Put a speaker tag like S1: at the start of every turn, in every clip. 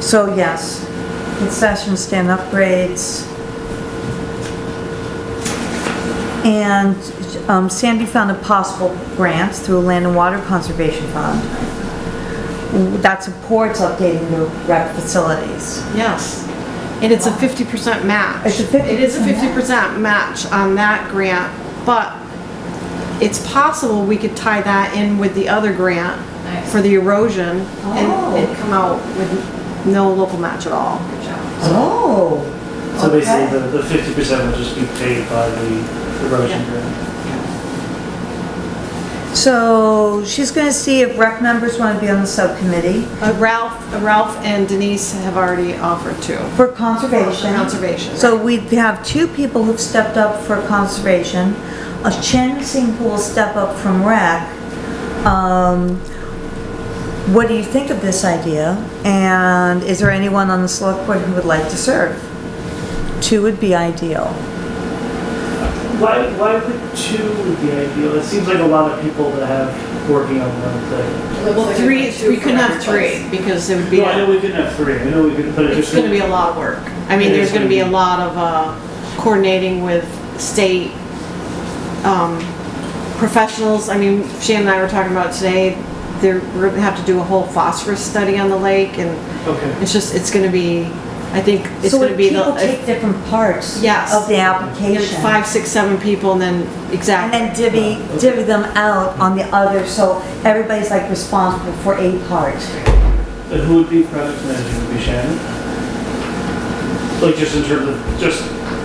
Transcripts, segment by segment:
S1: So yes, concession stand upgrades. And um, Sandy found a possible grant through Land and Water Conservation Fund. That supports updating the rec facilities.
S2: Yes. And it's a fifty percent match.
S1: It's a 50%
S2: It is a fifty percent match on that grant, but it's possible we could tie that in with the other grant
S3: Nice.
S2: for the erosion
S1: Oh.
S2: and, and come out with no local match at all.
S3: Good job.
S1: Oh.
S4: So
S1: okay.
S4: basically, the, the fifty percent will just be paid by the erosion grant.
S1: So she's gonna see if rec members wanna be on the subcommittee
S2: Uh, Ralph, Ralph and Denise have already offered to.
S1: for conservation.
S2: Conservation.
S1: So we have two people who've stepped up for conservation. A Chen Sing will step up from rec. Um, what do you think of this idea? And is there anyone on the select board who would like to serve? Two would be ideal.
S4: Why, why would two would be ideal? It seems like a lot of people that have working on one thing.
S2: Well, three, we couldn't have three because it would be.
S4: No, I know we couldn't have three, I know we could put it
S2: It's
S4: just.
S2: gonna be a lot of work. I mean, there's gonna be a lot of uh, coordinating with state um, professionals. I mean, Shannon and I were talking about today, they're, we're gonna have to do a whole phosphorus study on the lake and
S4: Okay.
S2: it's just, it's gonna be, I think it's
S1: So
S2: gonna
S1: if
S2: be
S1: people
S2: the,
S1: take different parts
S2: Yes.
S1: of the
S2: if-
S1: application.
S2: five, six, seven people and then,
S1: And
S2: exactly.
S1: then divvy, divvy them out on the other, so everybody's like responsible for a part.
S4: And who would be project manager? Would be Shannon? Like just in terms of just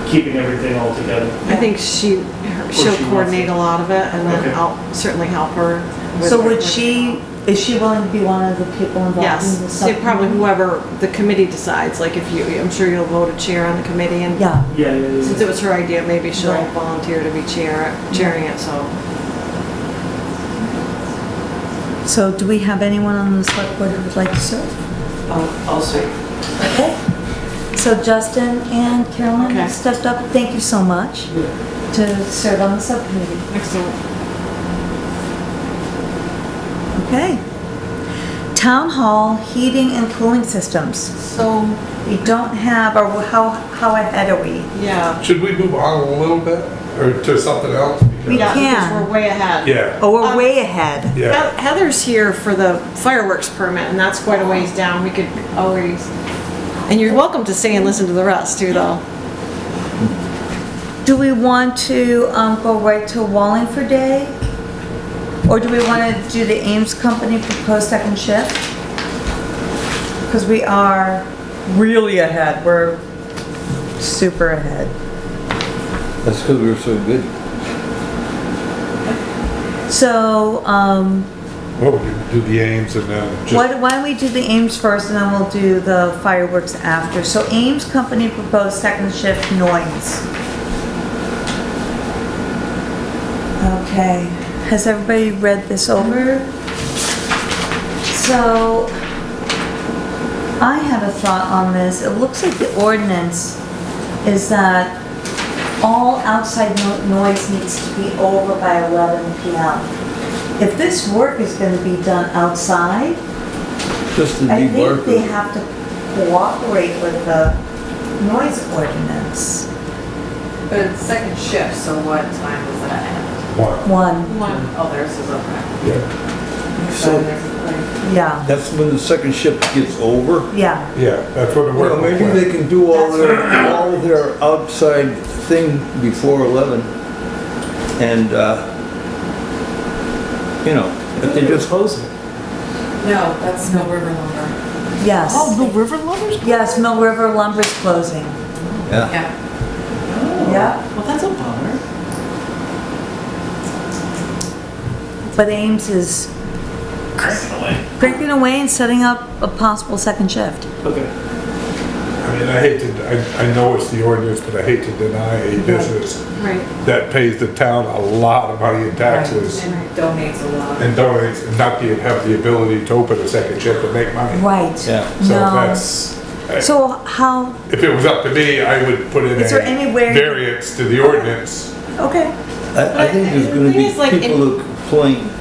S4: keeping everything all together.
S2: I think she, her- she'll
S4: she wants
S2: coordinate
S4: it.
S2: a lot of it and
S4: Okay.
S2: then I'll certainly help her. with
S1: So
S2: her
S1: would
S2: work.
S1: she, is she willing to be one of the people involved in the
S2: Yes, they
S1: subcommittee?
S2: probably whoever the committee decides, like if you, I'm sure you'll vote a chair on the committee and
S1: Yeah,
S4: Yeah, yeah, yeah,
S2: since it was her idea, maybe she'll
S1: Right.
S2: volunteer to be chair, chairing it, so.
S1: so do we have anyone on the select board who would like to serve?
S5: I'll say,
S1: Okay. So Justin and Carolyn
S2: Okay.
S1: have stepped up, thank you so much to serve on the subcommittee.
S2: Excellent.
S1: Okay. Town hall heating and cooling systems.
S2: So,
S1: We don't have, or how, how ahead are we?
S2: yeah.
S6: Should we move on a little bit or to something else?
S1: We
S2: Yeah, because
S1: can.
S2: We're way ahead.
S6: Yeah,
S1: Oh, we're
S2: Um,
S1: way ahead.
S2: He-
S6: yeah.
S2: Heather's here for the fireworks permit and that's quite a ways down, we could always, and you're welcome to stay and listen to the rest too, though.
S1: Do we want to um, go right to Wallingford Day? Or do we want to do the Ames Company proposed second shift? Because we are really ahead, we're super ahead.
S7: That's because we were so good.
S1: So, um,
S6: Well, we can do the aims and then
S1: why
S6: just,
S1: don't why don't we do the Ames first and then we'll do the fireworks after? So Ames Company proposed second shift noise. Okay, has everybody read this over? So, I have a thought on this. It looks like the ordinance is that all outside no- noise needs to be over by 11 PM. If this work is gonna be done outside,
S7: Just to
S1: I think they
S7: debark.
S1: have to cooperate with the noise ordinance.
S3: But it's second shift, so what time does that end?
S6: one,
S1: One,
S3: One. Oh, theirs is okay.
S6: yeah,
S3: So
S7: So-
S3: there's like,
S1: yeah,
S7: That's when the second shift gets over.
S1: yeah.
S6: yeah, that's what the
S7: Well,
S6: work
S7: maybe they
S6: was.
S7: can do all their, all their outside thing before 11. And, uh, you know, if they just,
S4: close it.
S3: No, that's no river lumber.
S1: Yes.
S2: Mill Oh, River Lovers?
S1: Yes, Mill River Lumber's closing.
S7: yeah.
S3: Yeah.
S1: Yeah.
S2: Well, that's a bummer.
S1: But Ames is
S4: Cranking away.
S1: cranking away and setting up a possible second shift.
S4: Okay.
S6: I mean, I hate to, I, I know it's the ordinance, but I hate to deny a business
S2: Right.
S6: that pays the town a lot of money in taxes
S3: And donates a lot.
S6: and donates and not be, have the ability to open a second shift and make money.
S1: Right.
S7: Yeah.
S6: So
S1: No.
S6: that's, I-
S1: So how,
S6: if it was up to me, I would put in a
S1: Is there any way-
S6: variance to the ordinance.
S1: okay,
S7: I, I think there's
S2: The
S7: gonna
S2: thing is, like,
S7: be people
S2: in-
S7: who complain